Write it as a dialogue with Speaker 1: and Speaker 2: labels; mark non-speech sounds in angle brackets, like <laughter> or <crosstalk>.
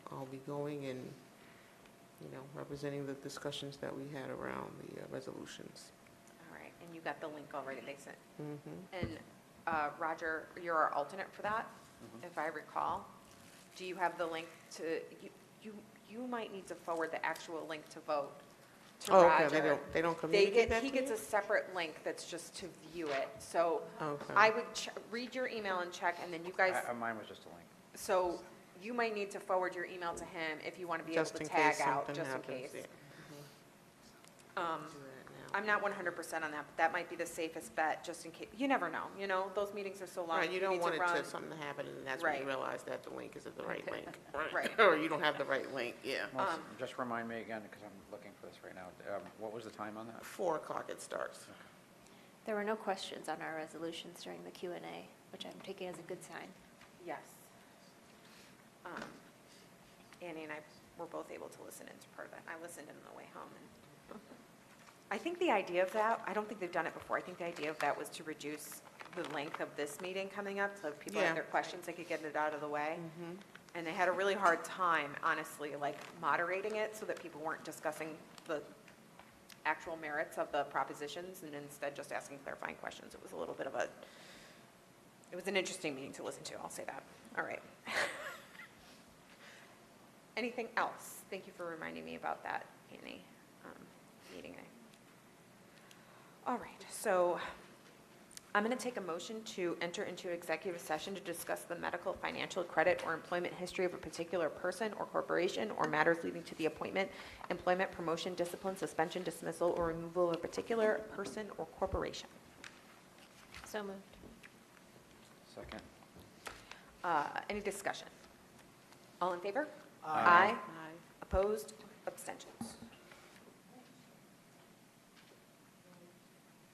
Speaker 1: going and, you know, representing the discussions that we had around the uh, resolutions.
Speaker 2: All right, and you got the link already they sent.
Speaker 1: Mhm.
Speaker 2: And uh, Roger, you're our alternate for that,
Speaker 3: Mm-hmm.
Speaker 2: if I recall. Do you have the link to, you, you, you might need to forward the actual link to vote to
Speaker 1: Oh,
Speaker 2: Roger.
Speaker 1: okay, they don't, they don't
Speaker 2: They
Speaker 1: communicate
Speaker 2: get,
Speaker 1: that
Speaker 2: he
Speaker 1: to you?
Speaker 2: gets a separate link that's just to view it. So
Speaker 1: Okay.
Speaker 2: I would ch- read your email and check, and then you guys,
Speaker 3: I- Uh, Mine was just a link.
Speaker 2: so you might need to forward your email to him if you want to be able
Speaker 1: Just
Speaker 2: to
Speaker 1: in
Speaker 2: tag
Speaker 1: case
Speaker 2: out,
Speaker 1: something
Speaker 2: just in
Speaker 1: happens.
Speaker 2: case.
Speaker 1: yeah.
Speaker 2: Um,
Speaker 1: Do that now.
Speaker 2: I'm not one hundred percent on that, but that might be the safest bet, just in case, you never know, you know, those meetings are so long.
Speaker 1: Right, you don't
Speaker 2: need
Speaker 1: want it
Speaker 2: run.
Speaker 1: to, something to happen and that's when you
Speaker 2: Right.
Speaker 1: realize that the link isn't the right link.
Speaker 2: <laughs> Right.
Speaker 1: <laughs> Or you don't have the right link, yeah.
Speaker 3: Melissa,
Speaker 2: Um,
Speaker 3: Just remind me again, because I'm looking for this right now. Um, What was the time on that?
Speaker 1: Four o'clock it starts.
Speaker 4: There were no questions on our resolutions during the Q and A, which I'm taking as a good sign.
Speaker 2: Yes. Um, Annie and I were both able to listen into part of that, I listened on the way home, and I think the idea of that, I don't think they've done it before, I think the idea of that was to reduce the length of this meeting coming up, so if people
Speaker 1: Yeah.
Speaker 2: had their questions, they could get it out of the way. And they had a really hard time, honestly, like moderating it so that people weren't discussing the actual merits of the propositions and instead just asking clarifying questions. It was a little bit of a, it was an interesting meeting to listen to, I'll say that. All right. <laughs> Anything else? Thank you for reminding me about that, Annie, um, meeting. I- All right, so I'm going to take a motion to enter into executive session to discuss the medical, financial, credit, or employment history of a particular person or corporation or matters leading to the appointment, employment, promotion, discipline, suspension, dismissal, or removal of a particular person or corporation.
Speaker 4: So moved.
Speaker 3: Second.
Speaker 2: Uh, Any discussion? All in favor?
Speaker 3: Aye.
Speaker 2: Opposed? Abstentions?